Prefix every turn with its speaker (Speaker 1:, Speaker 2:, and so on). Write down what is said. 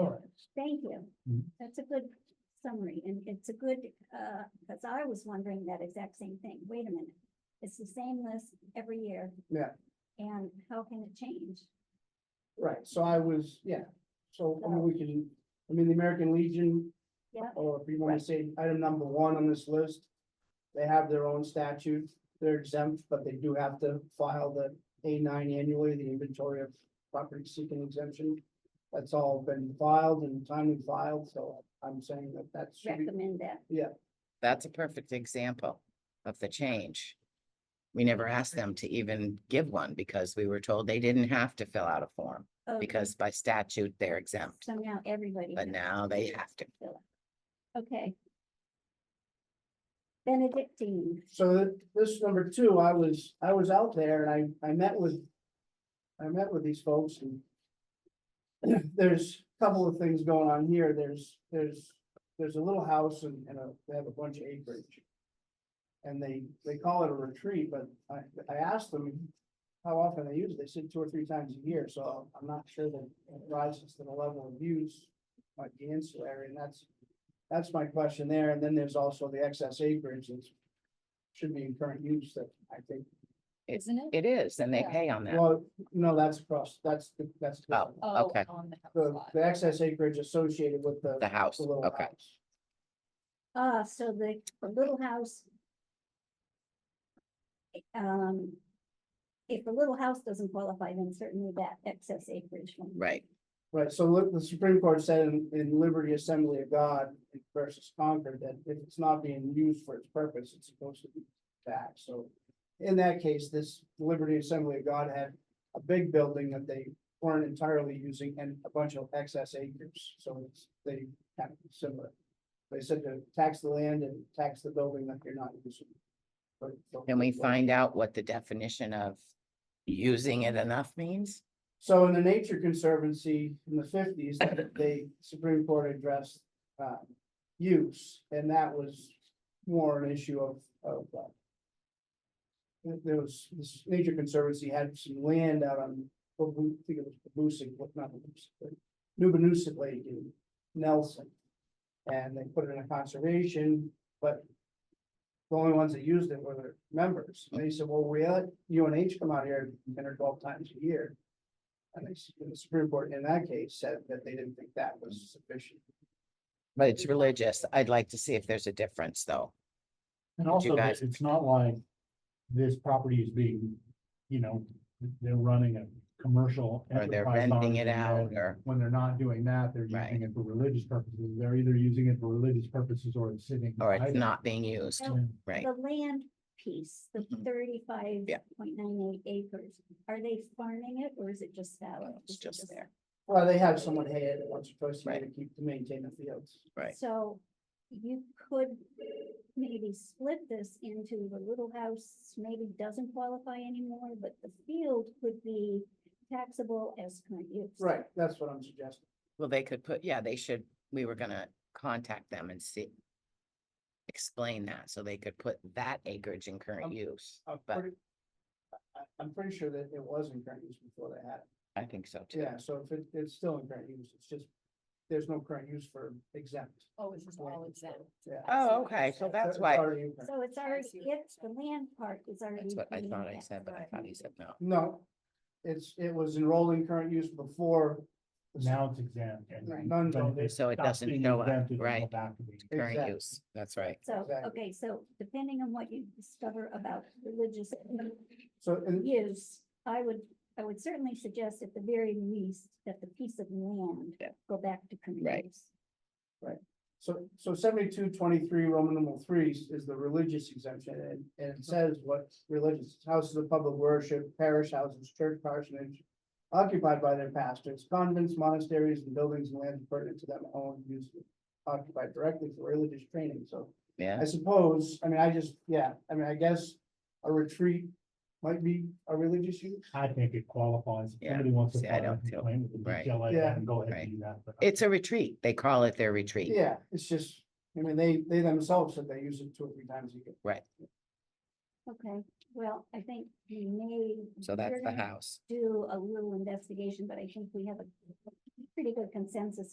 Speaker 1: All right.
Speaker 2: Thank you.
Speaker 1: Mhm.
Speaker 2: That's a good summary and it's a good, uh, cause I was wondering that exact same thing. Wait a minute. It's the same list every year.
Speaker 1: Yeah.
Speaker 2: And how can it change?
Speaker 1: Right, so I was, yeah, so, I mean, we can, I mean, the American Legion.
Speaker 2: Yeah.
Speaker 1: Or if you wanna say item number one on this list, they have their own statute, they're exempt, but they do have to file the A nine annually, the inventory of property seeking exemption. That's all been filed and timely filed, so I'm saying that that should be,
Speaker 2: Recommend that.
Speaker 3: That's a perfect example of the change. We never asked them to even give one because we were told they didn't have to fill out a form
Speaker 2: Okay,
Speaker 3: because by statute they're exempt,
Speaker 2: Oh, So now everybody.
Speaker 3: but
Speaker 2: has
Speaker 3: now they have to.
Speaker 2: Okay. Benedictine,
Speaker 1: so th- this number two, I was, I was out there and I, I met with. I met with these folks and. There's a couple of things going on here, there's, there's, there's a little house and, and a, they have a bunch of acreage. And they, they call it a retreat, but I, I asked them how often they use it, they said two or three times a year, so I'm not sure that it rises to the level of use. Like the ancillary, and that's, that's my question there, and then there's also the excess acreage that's should be in current use that I think,
Speaker 4: Isn't it?
Speaker 3: It is, and they
Speaker 4: Yeah.
Speaker 3: pay on that.
Speaker 1: well, no, that's across, that's, the that's.
Speaker 3: Oh.
Speaker 1: different.
Speaker 4: Oh,
Speaker 3: okay.
Speaker 4: On the house
Speaker 1: The,
Speaker 4: lot.
Speaker 1: the excess acreage associated with the.
Speaker 3: The house,
Speaker 1: the little
Speaker 3: okay.
Speaker 1: house.
Speaker 2: ah, so the, the little house. Um. If the little house doesn't qualify, then certainly that excess acreage. one.
Speaker 3: Right,
Speaker 1: Right, so look, the Supreme Court said in, in Liberty Assembly of God versus Concord that if it's not being used for its purpose, it's supposed to be taxed, so. In that case, this Liberty Assembly of God had a big building that they weren't entirely using and a bunch of excess acres, so it's, they kind of similar. They said to tax the land and tax the building that you're not using. But-
Speaker 3: can we find out what the definition of using it enough means?
Speaker 1: So in the Nature Conservancy in the fifties, they Supreme Court addressed uh use, and that was more an issue of of uh. There there was, this Nature Conservancy had some land out on, I think it was Babusick, what not Babusick, but Nubanuset Lake in Nelson. And they put it in a conservation, but the only ones that used it were their members. And they said, well, we let UNH come out here ten or twelve times a year. And they s- the Supreme Court in that case said that they didn't think that was sufficient.
Speaker 3: But it's religious. I'd like to see if there's a difference, though.
Speaker 5: And
Speaker 3: Would you
Speaker 5: also, that
Speaker 3: guys-
Speaker 5: it's not like this property is being, you know, they're running a commercial.
Speaker 3: Or they're
Speaker 5: enterprise on
Speaker 3: renting it
Speaker 5: and
Speaker 3: out,
Speaker 5: then
Speaker 3: or-
Speaker 5: When they're not doing that, they're
Speaker 3: Right.
Speaker 5: using it for religious purposes. They're either using it for religious purposes or it's sitting.
Speaker 3: Or it's
Speaker 5: idle.
Speaker 3: not being used,
Speaker 5: Yeah.
Speaker 3: right?
Speaker 2: The land piece, the
Speaker 3: Mhm.
Speaker 2: thirty-five
Speaker 3: Yeah.
Speaker 2: point nine eight acres, are they farming it or is it just fallow?
Speaker 3: Oh, It's
Speaker 2: Is it
Speaker 3: just there.
Speaker 1: Well, they have someone hay it once or twice a year to
Speaker 3: Right.
Speaker 1: keep to maintain the fields.
Speaker 3: Right.
Speaker 2: So you could maybe split this into the little house maybe doesn't qualify anymore, but the field could be taxable as current use.
Speaker 1: Right, that's what I'm suggesting.
Speaker 3: Well, they could put, yeah, they should, we were gonna contact them and see. Explain that, so they could put that acreage in current
Speaker 1: Um,
Speaker 3: use.
Speaker 1: I'm
Speaker 3: But-
Speaker 1: pretty, I, I'm pretty sure that it was in current use before they had it.
Speaker 3: I think so too.
Speaker 1: Yeah, so if it, it's still in current use, it's just, there's no current use for exempt.
Speaker 4: Oh, it's all exempt.
Speaker 1: Yeah.
Speaker 4: I see
Speaker 3: Oh,
Speaker 4: what you're
Speaker 3: okay, so
Speaker 4: saying.
Speaker 3: that's
Speaker 1: It's
Speaker 3: why,
Speaker 1: already in current.
Speaker 2: So it's
Speaker 4: I
Speaker 2: already,
Speaker 4: see what you're
Speaker 2: it's the land part is already.
Speaker 3: that's what I
Speaker 2: being
Speaker 3: thought I
Speaker 2: taxed.
Speaker 3: said, but I thought he said no.
Speaker 1: No, it's, it was enrolled in current use before. the-
Speaker 5: Now it's exempt. and
Speaker 4: Right.
Speaker 1: None
Speaker 5: when
Speaker 1: of it.
Speaker 3: So it
Speaker 5: stops
Speaker 3: doesn't
Speaker 5: being
Speaker 3: show up,
Speaker 5: exempt, it'll go
Speaker 3: right.
Speaker 5: back to being-
Speaker 3: Current
Speaker 1: Exactly.
Speaker 3: use, that's right.
Speaker 2: So,
Speaker 1: Exactly.
Speaker 2: okay, so depending on what you discover about religious
Speaker 1: So, and
Speaker 2: use, I would, I would certainly suggest at the very least that the piece of land
Speaker 3: Yeah.
Speaker 2: go back to current
Speaker 3: Right.
Speaker 2: use.
Speaker 1: So, so seventy-two twenty-three, Roman numeral three is- is the religious exemption, and, and it says what religious, houses of public worship, parish houses, church parsonage. Occupied by their pastors, convents, monasteries, and buildings and lands pertinent to them own use occupied directly for religious training, so.
Speaker 3: Yeah,
Speaker 1: I suppose, I mean, I just, yeah, I mean, I guess a retreat might be a religious use.
Speaker 5: I think it qualifies. If
Speaker 3: Yeah.
Speaker 5: Somebody wants to.
Speaker 3: See, I
Speaker 5: file a
Speaker 3: don't too.
Speaker 5: complaint with the
Speaker 3: Right.
Speaker 5: DPLA,
Speaker 1: Yeah.
Speaker 5: then Go ahead
Speaker 3: Right.
Speaker 5: and do that. but I
Speaker 3: it's a retreat. They call it their retreat.
Speaker 1: Yeah, it's just, I mean, they, they themselves said they use it two or three times a year.
Speaker 2: Okay, well, I think we may.
Speaker 3: So
Speaker 2: we're
Speaker 3: that's the
Speaker 2: gonna
Speaker 3: house.
Speaker 2: Do a little investigation, but I think we have a pretty good consensus